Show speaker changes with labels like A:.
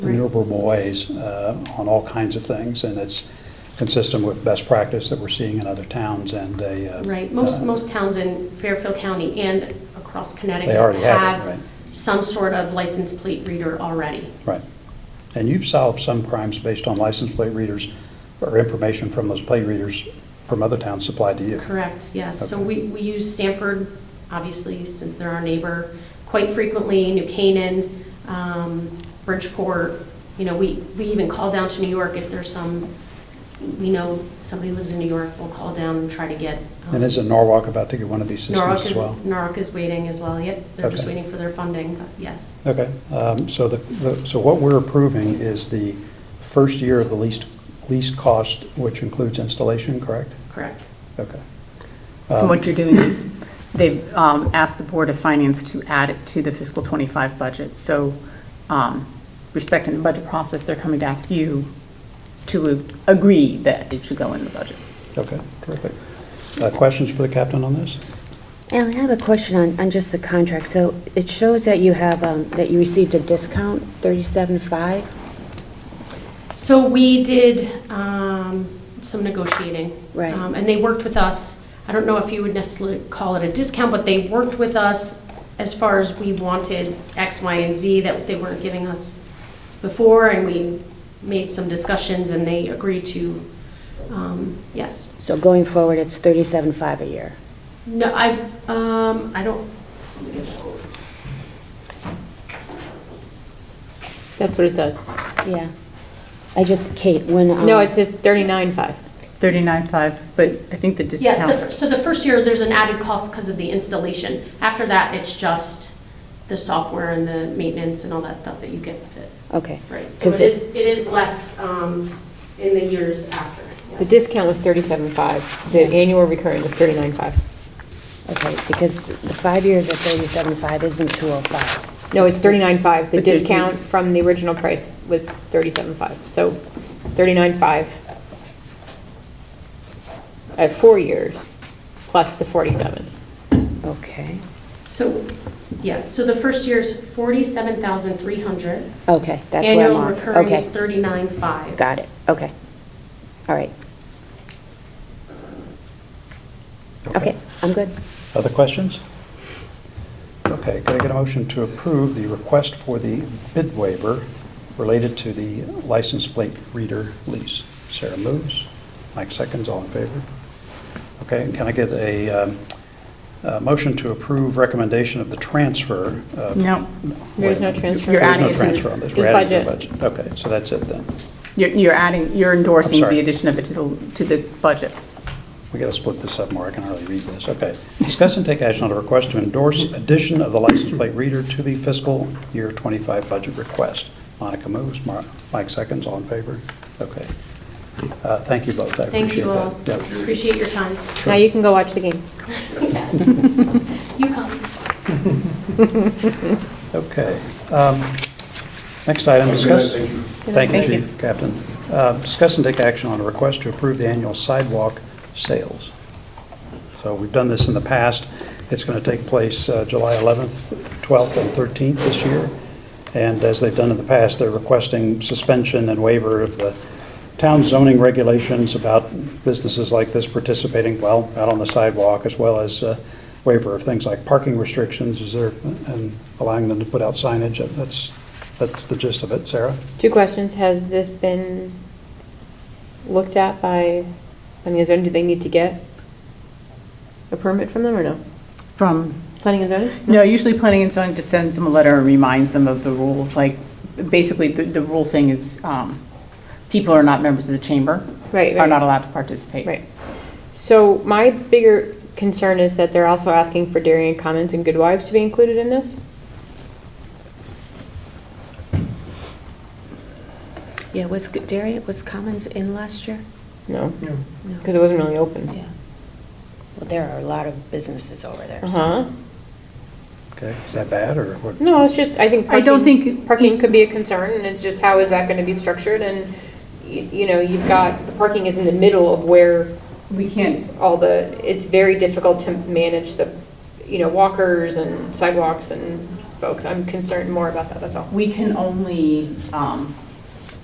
A: renewable ways uh, on all kinds of things, and it's consistent with best practice that we're seeing in other towns and they. uh,
B: Right, most,
A: uh,
B: most towns in Fairfield County and across Connecticut
A: They already have it, right?
B: have some sort of license plate reader already.
A: Right. And you've solved some crimes based on license plate readers or information from those plate readers from other towns supplied to you.
B: Correct, yes. So
A: Okay.
B: we, we use Stanford, obviously, since they're our neighbor, quite frequently, New Canaan, um, Bridgeport. You know, we, we even call down to New York if there's some, we know somebody lives in New York, we'll call down and try to get. um,
A: And isn't Norwalk about to get one of these systems
B: Norwalk
A: as
B: is,
A: well?
B: Norwalk is waiting as well, yep. They're just
A: Okay.
B: waiting for their funding, but yes.
A: Okay, um, so the, the- so what we're approving is the first year of the least, least cost, which includes installation, correct?
B: Correct.
A: Okay.
C: And
A: Um,
C: What you're doing is, they've um, asked the Board of Finance to add it to the fiscal '25 budget. So um, respecting the budget process, they're coming to ask you to a- agree that it should go in the budget.
A: Okay, terrific. Uh, Questions for the captain on this?
D: Now, I have a question on, on just the contract. So it shows that you have, um, that you received a discount, thirty-seven five,
B: So we did um, some negotiating.
D: Right.
B: Um, And they worked with us, I don't know if you would necessarily call it a discount, but they worked with us as far as we wanted X, Y, and Z that they weren't giving us before, and we made some discussions, and they agreed to, um, yes.
D: so going forward, it's thirty-seven five a year.
B: No, I, um, I don't,
E: That's what it says.
D: Yeah. I just, Kate, when, um...
E: No, it says thirty-nine five.
C: 39.5, but I think the
B: yes, the fir-
C: discount,
B: so the first year, there's an added cost because of the installation. After that, it's just the software and the maintenance and all that stuff that you get with it.
D: Okay.
B: Right, so
D: 'Cause
B: it
D: if-
B: is, it is less um, in the years after.
E: The
B: yes.
E: discount was thirty-seven five. The annual recurring was thirty-nine five.
D: Okay, because the five years at thirty-seven five isn't two oh five.
E: No, it's thirty-nine five. The
C: But there's-
E: discount from the original price was thirty-seven five. So thirty-nine five at four years, plus the forty-seven.
D: Okay,
B: So, yes, so the first year's 47,300.
D: okay, that's where I'm
B: Annual
D: off.
B: recurring is
D: Okay,
B: 39,500.
D: got it, okay. All right. Okay, I'm good.
A: Other questions? Okay, could I get a motion to approve the request for the bid waiver related to the license plate reader lease? Sarah moves, Mike seconds, all in favor? Okay, and can I get a um, a motion to approve recommendation of the transfer? of-
C: no,
E: There's no
A: Wait,
E: transfer.
C: You're
A: There's
C: adding
A: no
C: it to
A: transfer on this,
E: the
A: we're adding to the
E: budget.
A: budget. Okay, so that's it then.
C: you're you're adding, you're endorsing
A: sorry.
C: the addition of it to the, to the budget.
A: We got to split this up more, I can hardly read this, okay. Discuss and take action on a request to endorse addition of the license plate reader to the fiscal year 25 budget request. Monica moves, Mar- Mike seconds, all in favor? Okay. Uh, Thank you both, I
B: Thank
A: appreciate
B: you all.
A: that. Yeah.
B: Appreciate your time.
E: Now you can go watch the game.
B: Yes. You come.
A: Okay. Um, Next item, discuss. Thank you,
C: Thank you.
A: Chief Captain. Uh, Discuss and take action on a request to approve the annual sidewalk sales. So we've done this in the past. It's going to take place uh, July 11th, 12th, and 13th this year. And as they've done in the past, they're requesting suspension and waiver of the town zoning regulations about businesses like this participating, well, out on the sidewalk, as well as uh, waiver of things like parking restrictions, is there, and allowing them to put out signage. That's, that's the gist of it. Sarah?
E: Two questions. Has this been looked at by, I mean, is there, do they need to get a permit from them or no?
C: From
E: Planning and zoning?
C: No, usually planning and zoning just sends them a letter and reminds them of the rules, like, basically, the, the rule thing is, um, people who are not members of the chamber.
E: Right,
C: Are
E: right.
C: not allowed to participate.
E: Right. So my bigger concern is that they're also asking for Darien Commons and Good Wives to be included in this.
D: Yeah, was Darian, was Commons in last year?
E: No,
D: No.
E: because it wasn't really open.
D: Yeah. Well, there are a lot of businesses over there. so-
E: Uh-huh.
A: Okay, is that bad, or what?
E: No, it's just, I think.
C: I don't
E: parking-
C: think-
E: Parking could be a concern, and it's just how is that going to be structured? And, y- you know, you've got, the parking is in the middle of where
C: We can't,
E: all the, it's very difficult to manage the, you know, walkers and sidewalks and folks. I'm concerned more about that, that's all.
C: We can only um,